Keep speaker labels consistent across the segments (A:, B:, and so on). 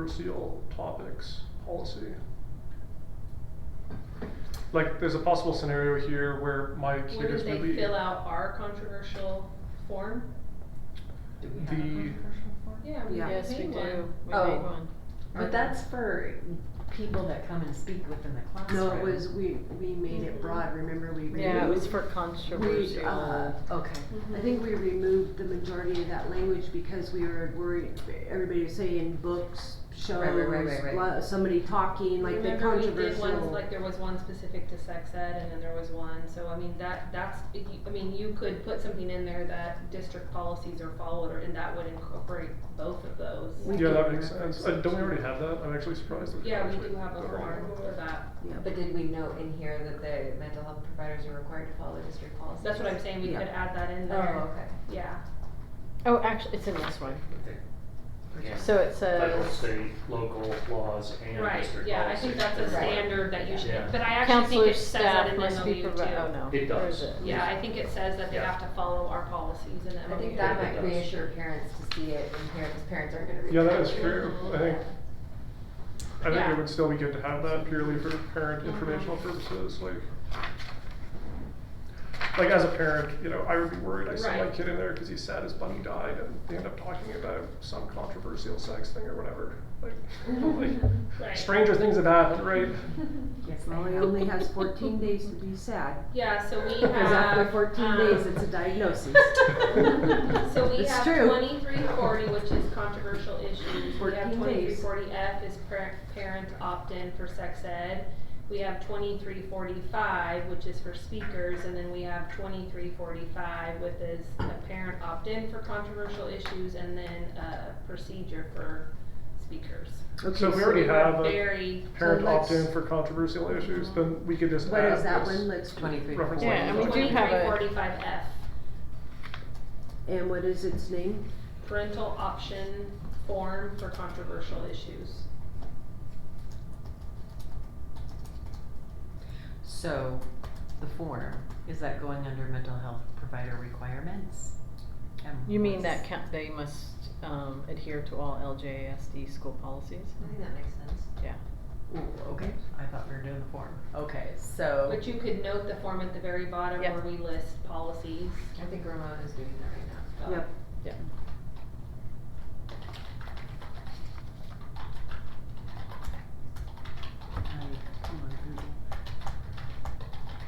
A: controversial topics policy. Like, there's a possible scenario here where my kid
B: Wouldn't
A: is
B: they
A: really.
B: fill out our controversial form?
C: Do we have a
A: The-
C: controversial form?
B: Yeah, we
D: Yeah.
B: made
D: Yes,
E: we
B: one.
E: do.
B: We
D: Oh.
B: made one.
C: But that's for people that come and speak within the classroom.
D: No, it was, we, we made it broad, remember we removed.
E: Yeah, it was for
D: We,
E: controversial.
D: uh, okay, I think we removed the majority of that language because we were worried, everybody was saying books, shows,
C: right, right, right, right.
D: lo- somebody talking, like the
B: Remember we did
D: controversial.
B: ones, like there was one specific to sex ed and then there was one, so I mean, that, that's, if you- I mean, you could put something in there that district policies are followed or, and that would incorporate both of those.
D: We
A: Yeah,
D: can
A: that makes
D: reference
A: sense. Uh, don't we
D: it.
A: already have that? I'm actually surprised that.
B: Yeah, we
A: actually
B: do have a
A: got around
B: form
A: to
B: for
A: that.
B: that.
F: But did we note in here that the mental health providers are required to follow district policies?
B: That's what I'm saying, we could
D: Yeah.
B: add that in
F: Oh,
B: there,
F: okay.
B: yeah.
E: Oh, actually, it's in this one.
G: Yeah. oh
E: So it
G: Federal,
E: says,
G: state, local laws and
B: Right,
G: district
B: yeah, I think
G: policies.
B: that's a
F: Right.
B: standard that you should,
G: Yeah.
B: but I actually think it
E: counselor's
B: says that
E: staff
B: in
E: must be
B: MOU too.
E: provided, oh no.
G: It
E: where is
G: does.
E: it?
B: Yeah, I think it says that they
G: Yeah.
B: have to follow our policies in
F: I
B: MOU.
F: think that
G: Yeah, it
F: might
G: does.
F: reassure parents to see it in here, because parents aren't gonna read.
A: Yeah, that
F: it.
A: is true. I think, I think
B: Yeah.
A: it would still be good to have that purely for parent
D: Mm-hmm.
A: informational purposes, like. Like as a parent, you know, I would be worried. I sent my
B: Right.
A: kid in there because he's sad his bunny died, and they end up talking about some controversial sex thing or whatever. Like, like
B: Right.
A: stranger things have happened, right?
D: Yes, Molly only has fourteen days to be sad,
B: Yeah, so we have. um,
D: because after fourteen days, it's a diagnosis.
B: So we
D: It's
B: have
D: true.
B: twenty-three forty, which is controversial issues. We have
D: 14
B: twenty-three
D: days.
B: forty F is par- parent opt-in for sex ed. We have twenty-three forty-five, which is for speakers, and then we have twenty-three forty-five, which is a parent opt-in for controversial issues, and then a procedure for speakers.
D: Okay,
A: So we already
B: We're
A: have a
B: Very,
A: parent
D: let's-
A: opt-in for controversial issues, then we could just
D: What
A: add
D: is that
A: this
D: one, let's,
F: Twenty-three.
A: reference
E: Yeah, and we
A: language.
E: do
B: twenty-three
E: have a-
B: forty-five F,
D: and what is its name?
B: parental option form for controversial issues.
C: So, the form, is that going under mental health provider requirements? And
E: You mean
C: what's-
E: that count, they must, um, adhere to all LJSD school policies?
F: I think that makes sense.
C: Ooh, okay, I thought we were doing the form. Okay, so,
B: But you could note the form at the very bottom
E: Yeah.
B: where we list policies.
F: I think Ramon is doing that right now.
B: so-
D: Yep.
E: Yeah.
C: um, come on, Google.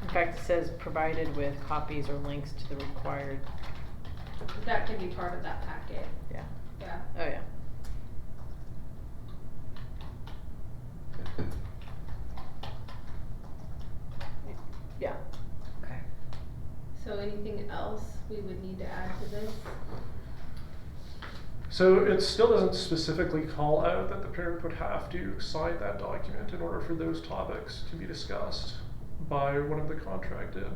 E: In fact, it says provided with copies or links to the required,
B: That can be part of that packet.
E: Yeah.
B: Yeah.
E: oh yeah. Yeah,
C: okay.
B: So anything else we would need to add to this?
A: So it still doesn't specifically call out that the parent would have to sign that document in order for those topics to be discussed by one of the contracted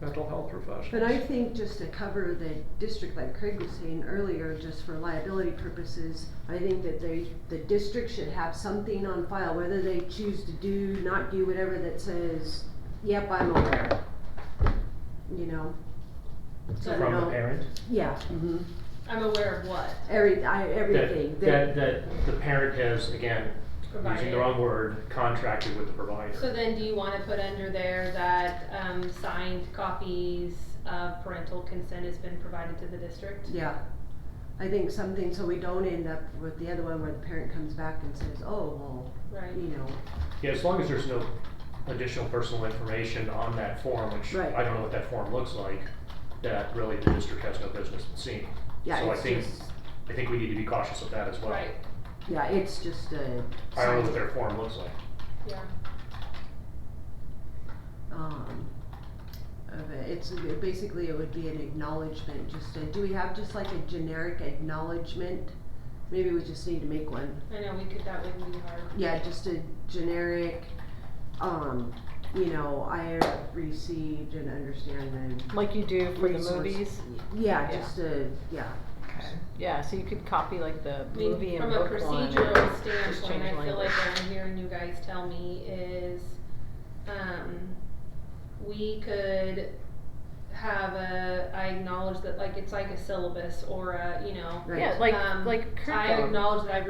A: mental health professionals.
D: But I think just to cover the district, like Craig was saying earlier, just for liability purposes, I think that they, the district should have something on file, whether they choose to do, not do, whatever that says, yep, I'm aware. You know? So I
G: From the
D: don't-
G: parent?
D: Yeah, mhm.
B: I'm aware of what
D: every, I, everything, that,
G: That, that, that the parent has, again, using the
B: provided.
G: wrong word, contracted with the
B: So
G: provider.
B: then do you wanna put under there that, um, signed copies of parental consent has been provided to the district?
D: yeah. I think something, so we don't end up with the other one where the parent comes back and says, oh, well,
B: Right.
D: you know,
G: Yeah, as long as there's no additional personal information on that form, which
D: Right.
G: I don't know what that form looks like, that really the district has no business seeing. So
D: yeah,
G: I
D: it's
G: think-
D: just,
G: I think we need to be cautious of that as well.
B: Right,
D: yeah, it's just a.
G: I don't know what their form looks like.
B: yeah.
D: um, of it. It's basically it would be an acknowledgement. Just a, do we have just like a generic acknowledgement? Maybe we just need to make one.
B: I know, we could, that wouldn't be hard.
D: Yeah, just a generic. Um, you know, I received and understand
E: like you do
D: the
E: for the
D: resource-
E: movies,
D: Yeah,
E: Yeah.
D: just a yeah.
E: yeah, so you could copy like the
B: I mean,
E: movie and
B: from a
E: book one.
B: procedural
E: just
B: standpoint,
E: change
B: I feel like
E: language.
B: what I'm hearing you guys tell me is, um, we could have a, I acknowledge that, like, it's like a syllabus or a, you know,
D: Right.
E: Yeah, like,
B: Um,
E: like curriculum.
B: I acknowledge that I've